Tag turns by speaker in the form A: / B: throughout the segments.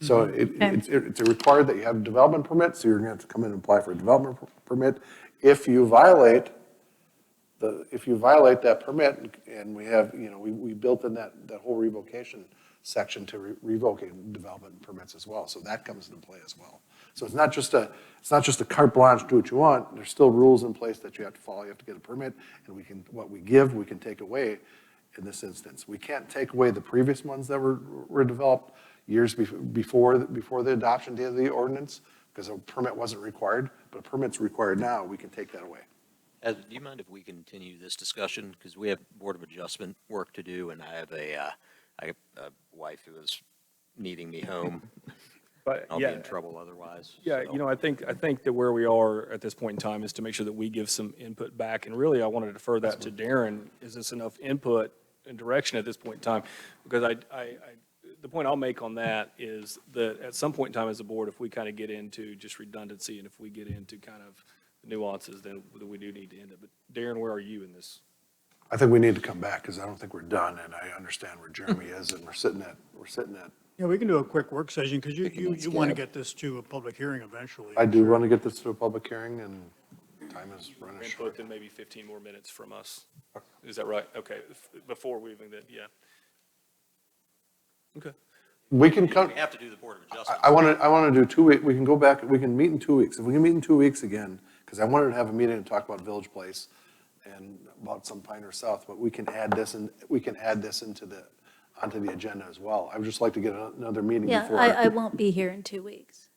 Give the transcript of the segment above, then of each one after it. A: So it, it's, it's required that you have a development permit, so you're gonna have to come in and apply for a development per- permit. If you violate the, if you violate that permit, and we have, you know, we, we built in that, that whole revocation section to re- revoking development permits as well, so that comes into play as well. So it's not just a, it's not just a carte blanche, do what you want, there's still rules in place that you have to follow, you have to get a permit, and we can, what we give, we can take away in this instance. We can't take away the previous ones that were, were developed years bef- before, before the adoption date of the ordinance, because a permit wasn't required, but a permit's required now, we can take that away.
B: Ed, do you mind if we continue this discussion? Because we have Board of Adjustment work to do, and I have a, uh, I have a wife who is needing me home.
C: But
B: I'll be
C: yeah,
B: in trouble otherwise.
C: yeah,
B: so-
C: you know, I think, I think that where we are at this point in time is to make sure that we give some input back. And really, I want to defer that to Darren. Is this enough input and direction at this point in time? Because I, I, I- the point I'll make on that is that at some point in time as a board, if we kind of get into just redundancy and if we get into kind of nuances, then we do need to end it. But Darren, where are you in this?
A: I think we need to come back, because I don't think we're done, and I understand where Jeremy is, and we're sitting at, we're sitting at,
D: Yeah, we can do a quick work session because you, you,
E: let's
D: you want to get
E: get-
D: this to a public hearing eventually.
A: I do want to get this to a public hearing, and time is running
C: Input,
A: short.
C: then maybe 15 more minutes from us. Is that right? Okay, f- before we even, then, yeah. Okay.
A: We can come,
B: We have to do the Board of
A: I,
B: Adjustment.
A: I want to, I want to do two week, we can go back, we can meet in two weeks. If we can meet in two weeks again, because I wanted to have a meeting and talk about Village Place and about some Pioneer South, but we can add this, and we can add this into the, onto the agenda as well. I would just like to get another meeting
E: Yeah,
A: before.
E: I, I won't be here in two weeks.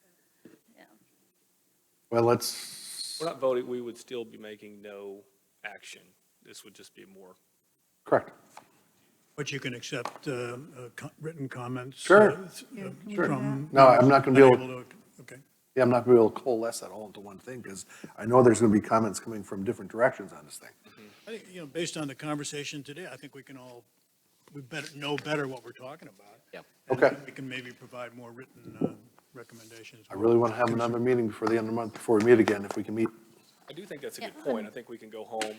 A: Well, let's,
C: We're not voting, we would still be making no action. This would just be more.
A: correct.
D: But you can accept uh, uh, co- written comments.
A: Sure.
D: uh, th- uh,
A: Sure.
D: from-
A: No, I'm not gonna be able-
D: to- Okay.
A: Yeah, I'm not going to be able to coalesce that all into one thing, because I know there's going to be comments coming from different directions on this thing.
D: I think, you know, based on the conversation today, I think we can all, we better, know better what we're talking about.
B: Yep.
D: And
A: Okay.
D: We can maybe provide more written uh, recommendations.
A: I really want to have another meeting before the end of the month, before we meet again, if we can meet.
C: I do think that's a
E: Yeah,
C: good point. I think we can go home,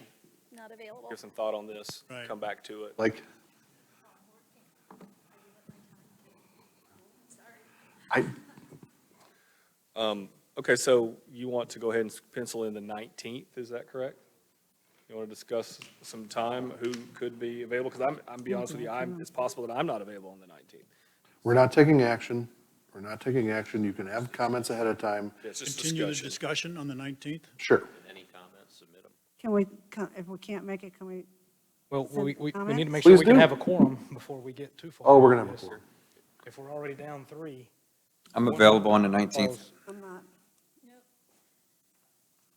E: Not available.
C: give some thought on this,
D: Right.
C: come back to it.
A: Like? I,
C: Okay, so you want to go ahead and pencil in the 19th, is that correct? You want to discuss some time, who could be available? Because I'm, I'm be honest with you, I'm, it's possible that I'm not available on the 19th.
A: we're not taking action. We're not taking action. You can have comments ahead of time.
C: It's just
D: Continue the
C: discussion.
D: discussion on the 19th?
A: Sure.
B: Any comments, submit them.
F: Can we, co- if we can't make it, can we,
G: Well,
F: Some
G: we, we, we need to make
A: Please
G: sure we can
A: do.
G: have a quorum before we get too far.
A: Oh, we're going to have
G: Yes,
A: a
G: sir.
A: forum.
G: If we're already down three.
H: I'm available on the 19th.
F: I'm not,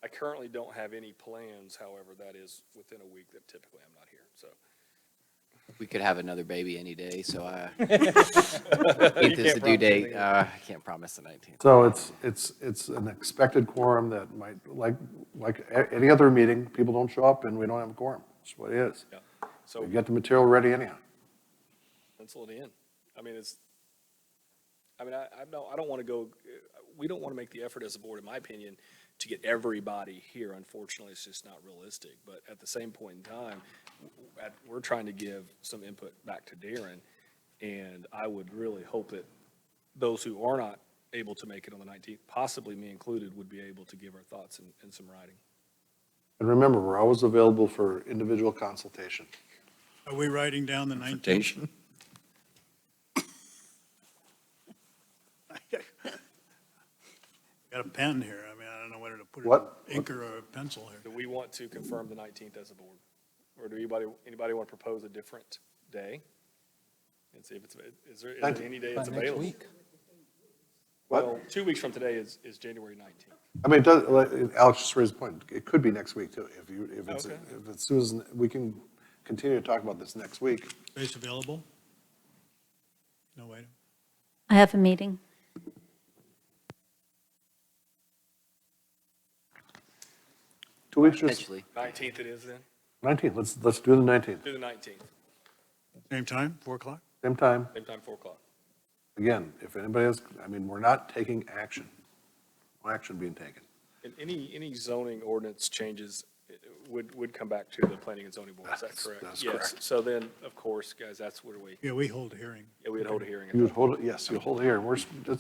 C: I currently don't have any plans, however, that is within a week that typically I'm not here, so.
I: We could have another baby any day, so I,
C: You
I: eighth is the
C: can't promise
I: due date.
C: anything.
I: Uh, I can't promise the nineteenth.
A: So it's, it's, it's an expected quorum that might, like, like a- any other meeting, people don't show up and we don't have a quorum. That's what it is.
C: Yeah. So
A: We've got the material ready anyhow.
C: pencil it in. I mean, it's, I mean, I, I don't, I don't want to go, we don't want to make the effort as a board, in my opinion, to get everybody here. Unfortunately, it's just not realistic. But at the same point in time, w- at, we're trying to give some input back to Darren. And I would really hope that those who are not able to make it on the nineteenth, possibly me included, would be able to give our thoughts in, in some writing.
A: And remember, we're always available for individual consultation.
D: Are we writing down the 19th?
H: Invitation.
D: Got a pen here. I mean, I don't know whether to put it,
A: What?
D: in ink or a pencil here.
C: Do we want to confirm the nineteenth as a board? Or do anybody, anybody want to propose a different day? And see if it's, is there, is there any day it's
G: By next
C: available?
G: week.
C: Well, two weeks from today is, is January nineteenth.
A: I mean, it does, like, Alex just raised a point, it could be next week too, if you, if it's,
C: Okay.
A: if it's Susan, we can continue to talk about this next week.
D: Space available? No, wait.
E: I have a meeting.
A: Two weeks, just
I: Potentially.
C: Nineteenth it is then?
A: 19, let's, let's do the 19th,
C: Do the nineteenth,
D: Same time, 4 o'clock?
A: same time.
C: same time, four o'clock.
A: Again, if anybody has, I mean, we're not taking action, no action being taken.
C: And any, any zoning ordinance changes eh, would, would come back to the planning and zoning board, is that
A: That's-
C: correct?
A: that's
C: Yes,
A: correct.
C: so then, of course, guys, that's where we,
D: Yeah, we hold a hearing.
C: yeah, we'd hold a hearing. at
A: You
C: that
A: would hold, it. yes, you hold it here, we're, s-